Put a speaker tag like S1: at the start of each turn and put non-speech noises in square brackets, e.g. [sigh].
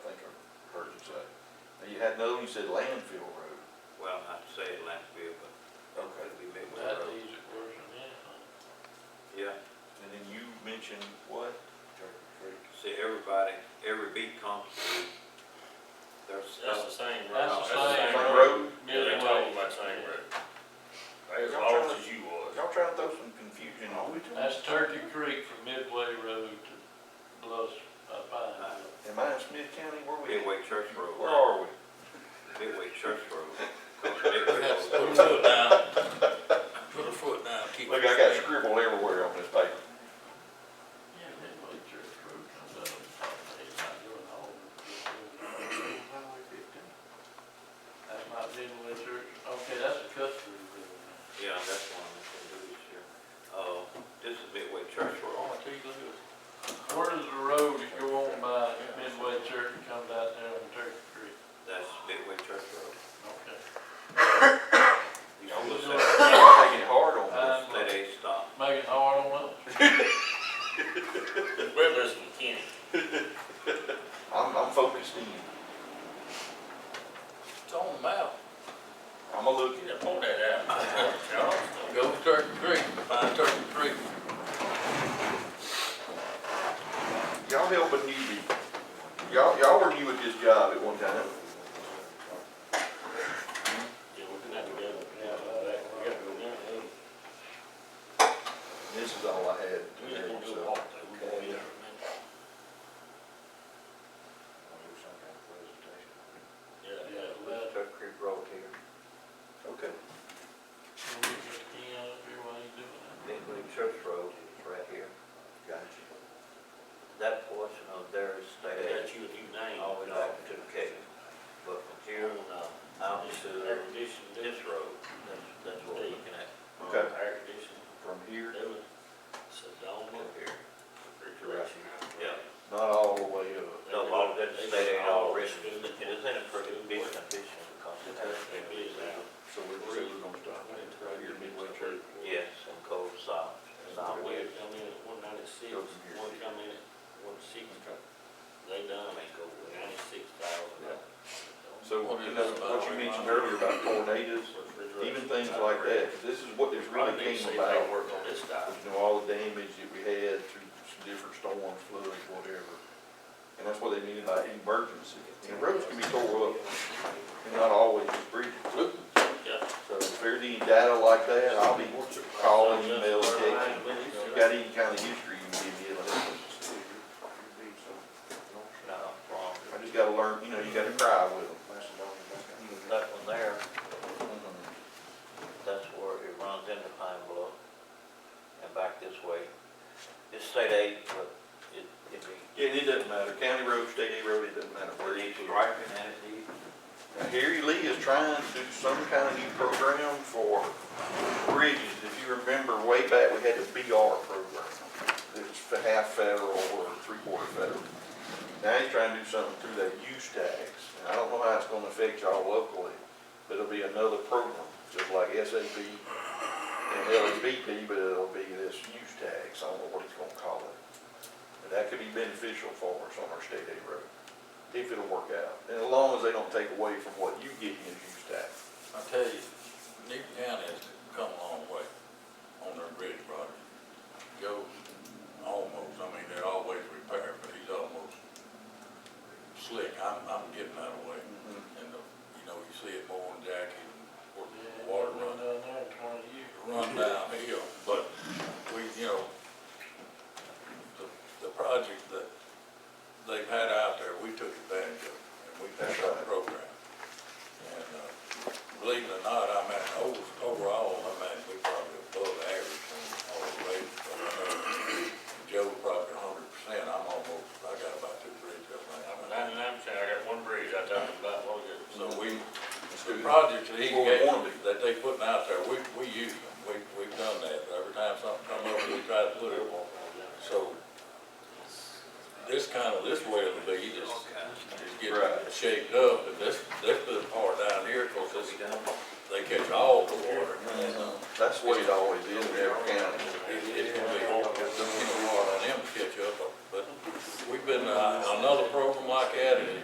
S1: had, no, you said landfill road.
S2: Well, I'd say it landfill, but
S1: Okay.
S2: it'd be mixed
S3: That's the
S2: up.
S3: easy version, yeah.
S2: Yeah,
S1: And then you mentioned what? Turkey Creek.
S2: see, everybody, every beat comes through. There's
S4: That's
S2: stuff.
S4: the same road.
S3: That's the same
S1: Same
S3: road.
S1: road.
S4: Yeah, they talking about same road. They As lost as you was.
S1: Y'all trying to throw some confusion on me too?
S3: That's Turkey Creek from Midway Road to Bluffs, up by.
S2: Uh,
S1: Am I in Smith County? Where we at?
S2: Midway Church
S1: Where
S2: Road,
S1: are we?
S2: Midway Church
S1: [laughs]
S2: Road. 'Cause Midway Road-
S4: Put a foot down. Put a foot down, keep.
S1: Look, I got scribble everywhere on this [coughs] paper.
S3: Yeah, Midway Church Road comes out of the top of the hill, not doing all of it. That's not Midway Church, okay, that's a cut through road.
S2: Yeah, that's one that's gonna do this year. Uh, this is Midway Church Road.
S3: Where does the road that go on by Midway Church and comes out there on Turkey Creek?
S2: That's Midway Church Road.
S3: Okay.
S2: You
S1: Y'all
S2: see
S1: was
S2: the
S1: taking it
S2: set-
S1: hard on
S3: Uh,
S2: set A stop. [laughs]
S3: Making hard on us.
S4: Riddler's McKinney.
S1: this. I'm, I'm focused in.
S4: It's on the map.
S1: I'm a look
S4: Yeah, pull that out. Charleston.
S5: Go to Turkey Creek, find Turkey Creek.
S1: at, y'all help a newbie. Y'all, y'all were new at this job at one time.
S4: Yeah, we're gonna have to go, yeah, uh, that- we gotta go down there.
S1: This is all I had.
S4: We just gonna do a walk through. We're gonna be there in a minute. Yeah,
S3: Yeah,
S4: yeah.
S3: well,
S2: Church Creek Road here.
S1: Okay.
S3: when we get the key out up here while he's doing that.
S2: Midway Church Road is right here.
S1: Gotcha.
S2: That portion of there is
S4: They
S2: state
S4: got you a new
S2: aid,
S4: name.
S2: all the way back to the cave. But from here on out, out
S4: This is
S2: to
S4: air conditioning.
S2: this road, that's, that's what we're looking at.
S1: Okay.
S4: Air conditioning.
S1: From here,
S4: They was Sedona.
S2: Up here.
S4: refrigeration.
S2: Yeah.
S1: not all the way up.
S2: No, all that state aid, all risk, it
S4: Student.
S2: is in a pretty big condition because it has been
S4: It is out.
S1: So we're really gonna stop right here midway through.
S2: Yes, and cold south,
S4: Now, we
S2: southwest.
S4: had come in at one ninety-six,
S1: Goes from here to
S4: one
S1: here.
S4: come in at one sixty, they done, they go ninety-six thousand.
S1: So, you know, what you mentioned earlier about tornadoes, even things like that, this is what this really came about.
S4: Work on this stuff.
S1: You know, all the damage that we had through some different storms, floods, whatever. And that's what they mean by emergency. And roads can be tore up and not always breathing.
S4: Yeah.
S1: So if there's any data like that, I'll be calling, emailing, texting. If you got any kind of history you can give me, let us know.
S2: Not a problem.
S1: I just gotta learn, you know, you gotta cry with them.
S2: That one there, that's where it runs into Pine Bluff and back this way. It's state aid, but it, it be.
S1: Yeah, it doesn't matter, county road, state aid road, it doesn't matter where you go.
S2: striping and it's even.
S1: Now, Harry Lee is trying to do some kind of new program for bridges. If you remember way back, we had the BR program. It was for half federal or three-quarter federal. Now he's trying to do something through that use tax. And I don't know how it's gonna affect y'all locally, but it'll be another program, just like SAB and LABP, but it'll be this use tax. I don't know what he's gonna call it. But that could be beneficial for us on our state aid road if it'll work out. And as long as they don't take away from what you get in use tax.
S5: I tell you, Newton County has come a long way on their bridge project. Joe's almost, I mean, they're always repaired, but he's almost slick. I'm, I'm getting that way. And, uh, you know, you see it more in Jackie, where
S3: Yeah,
S5: the
S3: water run
S5: water runs,
S3: down there in twenty years.
S5: run downhill, but we, you know, the, the project that they've had out there, we took advantage of, and we passed our program. And, uh, believe it or not, I mean, over- overall, I mean, we probably above average on all the rates. but I know Joe probably a hundred percent, I'm almost, I got about two bridges, I
S4: I'm
S5: mean, I-
S4: ninety-nine percent, I got one bridge I talked about, what was it?
S5: so we, the projects that he
S1: Well,
S5: gave,
S1: one.
S5: that they putting out there, we, we use them, we, we've done that, but every time something come up, we try to put it on. So, this kind of, this way it'll be, just, just get
S1: Right.
S5: shaped up, and this, they put part down here, cause this, they catch all the water, and, uh,
S1: That's the way it always is in every county.
S5: it, it's gonna be hard. uh,